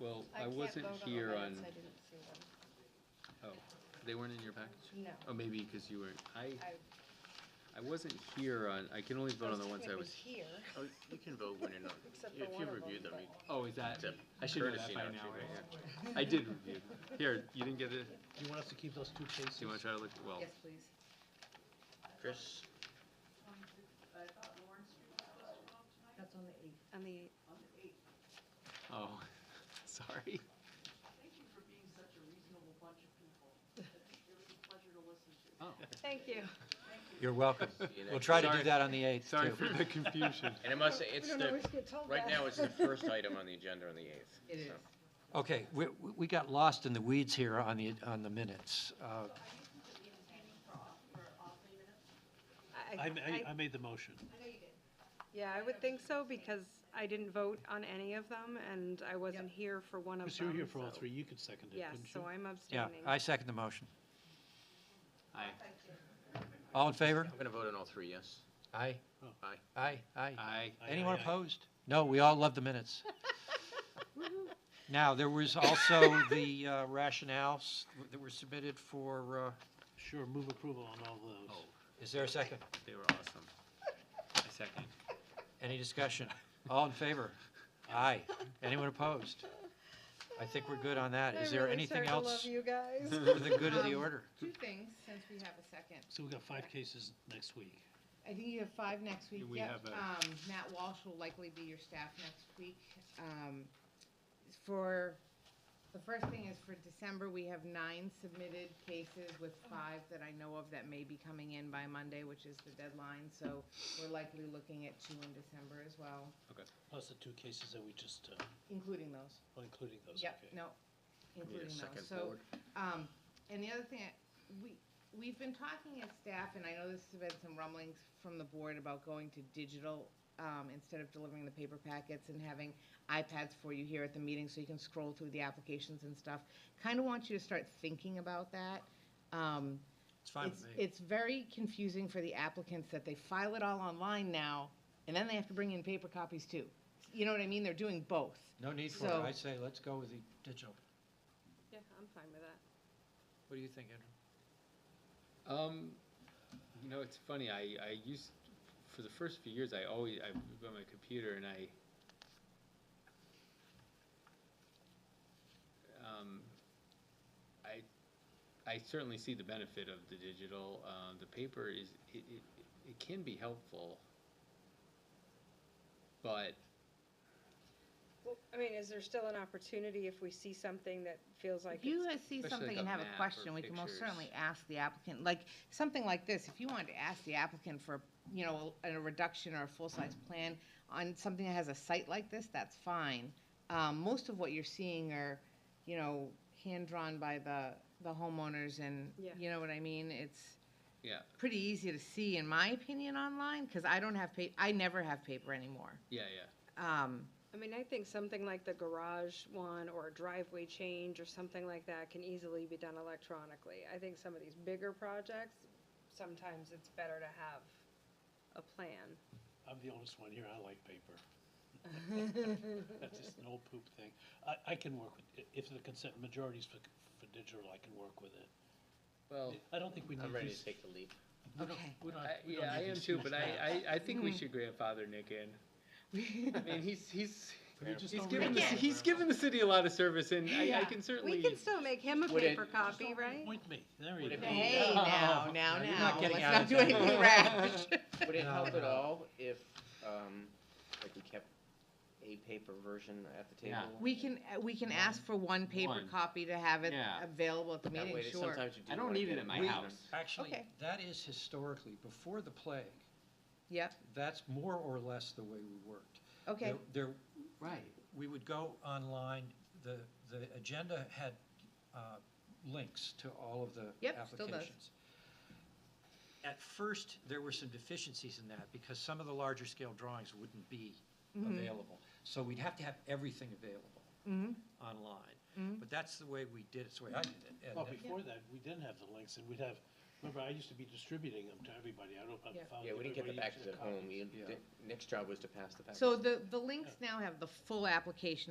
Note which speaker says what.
Speaker 1: Well, I
Speaker 2: can't
Speaker 1: wasn't
Speaker 2: vote the
Speaker 1: here on,
Speaker 2: minutes, I didn't see them.
Speaker 1: oh, they weren't in your package?
Speaker 2: No.
Speaker 1: Oh, maybe because you were, I,
Speaker 2: I
Speaker 1: I wasn't here on, I can only vote on the ones I was.
Speaker 2: technically here.
Speaker 3: Oh, you can vote when you're not,
Speaker 2: Except for
Speaker 3: if
Speaker 2: one
Speaker 3: you
Speaker 2: of
Speaker 3: reviewed
Speaker 2: them,
Speaker 3: them, you
Speaker 1: Oh, is that,
Speaker 3: Except
Speaker 1: I should know that
Speaker 3: courtesy
Speaker 1: by
Speaker 3: not
Speaker 1: now,
Speaker 3: to,
Speaker 1: right? I did review. Here, you didn't get it?
Speaker 4: Do you want us to keep those two
Speaker 1: Do you want to try
Speaker 4: cases?
Speaker 1: to look, well,
Speaker 2: Yes, please.
Speaker 3: Chris,
Speaker 2: That's on the eighth. On the eighth.
Speaker 1: oh, sorry.
Speaker 5: Thank you for being such a reasonable bunch of people. It was a pleasure to listen to.
Speaker 1: Oh,
Speaker 2: Thank you.
Speaker 4: You're welcome.
Speaker 3: you know,
Speaker 4: We'll try to
Speaker 1: Sorry.
Speaker 4: do that on the 8th, too.
Speaker 1: Sorry for the confusion.
Speaker 3: and it must, it's the,
Speaker 2: get told
Speaker 3: right now, it's the first item on the agenda on the eighth.
Speaker 2: It is.
Speaker 4: Okay, we, we- we got lost in the weeds here on the, on the minutes. Uh,
Speaker 2: I, I,
Speaker 6: made the motion.
Speaker 2: yeah, I would think so because I didn't vote on any of them and I wasn't here for one of them.
Speaker 6: Because you were here for all
Speaker 2: so-
Speaker 6: three, you could second it,
Speaker 2: Yes,
Speaker 6: couldn't
Speaker 2: so
Speaker 6: you?
Speaker 2: I'm
Speaker 4: Yeah,
Speaker 2: abstaining.
Speaker 4: I second the motion.
Speaker 1: Aye,
Speaker 4: All in favor?
Speaker 3: I'm gonna vote on all three, yes?
Speaker 4: Aye.
Speaker 3: Aye.
Speaker 4: Aye, aye.
Speaker 1: aye.
Speaker 6: Aye,
Speaker 4: Anyone
Speaker 6: aye, aye.
Speaker 4: opposed? No, we all love the minutes. Now, there was also the uh, rationales that were submitted for, uh,
Speaker 6: Sure, move approval on all those.
Speaker 1: Oh,
Speaker 4: is there a second?
Speaker 1: they were awesome. I second.
Speaker 4: Any discussion? All in favor? Aye. Anyone opposed? I think we're good on that. Is there anything else
Speaker 2: I really starting to love you guys.
Speaker 4: for the good of the
Speaker 7: Um,
Speaker 4: order?
Speaker 7: Two things, since we have a second.
Speaker 6: So we got five cases next week.
Speaker 7: I think you have five next week.
Speaker 1: Do we
Speaker 7: Yep.
Speaker 1: have a-
Speaker 7: Um, Matt Walsh will likely be your staff next week. Um, for, the first thing is for December, we have nine submitted cases with five that I know of that may be coming in by Monday, which is the deadline, so we're likely looking at two in December as well,
Speaker 6: Plus the two cases that we just, uh,
Speaker 7: including those.
Speaker 6: well, including those,
Speaker 7: Yep,
Speaker 6: okay.
Speaker 7: no, including those.
Speaker 3: second
Speaker 7: So,
Speaker 3: board.
Speaker 7: um, and the other thing, we, we've been talking as staff, and I know this has been some rumblings from the board about going to digital, um, instead of delivering the paper packets and having iPads for you here at the meeting so you can scroll through the applications and stuff. Kind of want you to start thinking about that. Um,
Speaker 4: It's fine
Speaker 7: it's-
Speaker 4: with me.
Speaker 7: It's very confusing for the applicants that they file it all online now, and then they have to bring in paper copies too. You know what I mean? They're doing both.
Speaker 4: No need for it.
Speaker 7: so-
Speaker 4: I say, let's go with the digital.
Speaker 2: Yeah, I'm fine with that.
Speaker 4: What do you think, Andrew?
Speaker 1: Um, you know, it's funny. I, I used for the first few years. I always I would go on my computer and I. Um, I, I certainly see the benefit of the digital. Um, the paper is it, it, it can be helpful. But
Speaker 2: Well, I mean, is there still an opportunity if we see something that feels like
Speaker 7: If you
Speaker 2: it's,
Speaker 7: guys see
Speaker 1: Especially
Speaker 7: something
Speaker 1: like
Speaker 7: and
Speaker 1: a
Speaker 7: have a
Speaker 1: map or
Speaker 7: question, we can most
Speaker 1: pictures.
Speaker 7: certainly ask the applicant, like, something like this, if you wanted to ask the applicant for, you know, a a reduction or a full-size plan on something that has a site like this, that's fine. Um, most of what you're seeing are, you know, hand-drawn by the, the homeowners and,
Speaker 2: Yeah.
Speaker 7: you know what I mean? It's
Speaker 1: yeah,
Speaker 7: pretty easy to see, in my opinion, online, because I don't have pa, I never have paper anymore.
Speaker 1: yeah, yeah.
Speaker 7: Um,
Speaker 2: I mean, I think something like the garage one or a driveway change or something like that can easily be done electronically. I think some of these bigger projects, sometimes it's better to have a plan.
Speaker 6: I'm the oldest one here, I like paper. That's just an old poop thing. I, I can work with, i- if the consent majority's for, for digital, I can work with it.
Speaker 1: Well,
Speaker 6: I don't think we need these.
Speaker 3: I'm ready to take the leap.
Speaker 6: we don't-
Speaker 7: Okay.
Speaker 6: we don't-
Speaker 1: I,
Speaker 6: we don't
Speaker 1: yeah, I
Speaker 6: need
Speaker 1: am
Speaker 6: these
Speaker 1: too.
Speaker 6: huge
Speaker 1: But
Speaker 6: maps.
Speaker 1: I, I, I think we should grandfather Nick in. I mean, he's he's
Speaker 6: We just
Speaker 1: he's
Speaker 6: don't
Speaker 1: given
Speaker 6: read
Speaker 1: the,
Speaker 6: them.
Speaker 1: he's given the city a lot of service, and I, I can certainly.
Speaker 2: We can still make him a
Speaker 3: Would it-
Speaker 2: paper copy, right?
Speaker 6: Point me, there you
Speaker 3: Would it
Speaker 6: go.
Speaker 3: be-
Speaker 7: hey, now, now, now.
Speaker 4: You're not getting out of
Speaker 7: Let's not do
Speaker 4: that.
Speaker 7: anything rash.
Speaker 3: Would it
Speaker 4: No,
Speaker 3: help at
Speaker 4: no.
Speaker 3: all if, um, like we kept a paper version at the
Speaker 1: Yeah.
Speaker 3: table?
Speaker 7: We can, uh, we can ask for one paper
Speaker 1: One.
Speaker 7: copy to have it
Speaker 1: Yeah.
Speaker 7: available at the
Speaker 3: That
Speaker 7: meeting,
Speaker 3: way, that
Speaker 7: sure.
Speaker 3: sometimes you do.
Speaker 1: I don't
Speaker 3: wanna
Speaker 1: need
Speaker 3: get
Speaker 1: it at my
Speaker 3: version.
Speaker 1: house.
Speaker 4: Actually,
Speaker 7: Okay.
Speaker 4: that is historically, before the plague,
Speaker 7: Yep,
Speaker 4: that's more or less the way we worked.
Speaker 7: okay,
Speaker 4: There- There,
Speaker 1: Right.
Speaker 4: we would go online, the, the agenda had uh, links to all of the
Speaker 7: Yep, still does.
Speaker 4: applications. At first, there were some deficiencies in that, because some of the larger scale drawings wouldn't be
Speaker 7: Mm-hmm.
Speaker 4: available. So we'd have to have everything available
Speaker 7: Mm-hmm.
Speaker 4: online. But that's the way we did it, it's the way I did it.
Speaker 6: Well,
Speaker 4: and-
Speaker 6: before that, we didn't have the links, and we'd have, remember, I used to be distributing them to everybody, I don't know
Speaker 7: Yeah.
Speaker 6: if I found.
Speaker 3: Yeah, we didn't get the
Speaker 6: everybody
Speaker 3: packets
Speaker 6: into
Speaker 3: at home, We-
Speaker 4: Yeah.
Speaker 3: the- Nick's job was to pass the packets.
Speaker 7: so the, the links now have the full application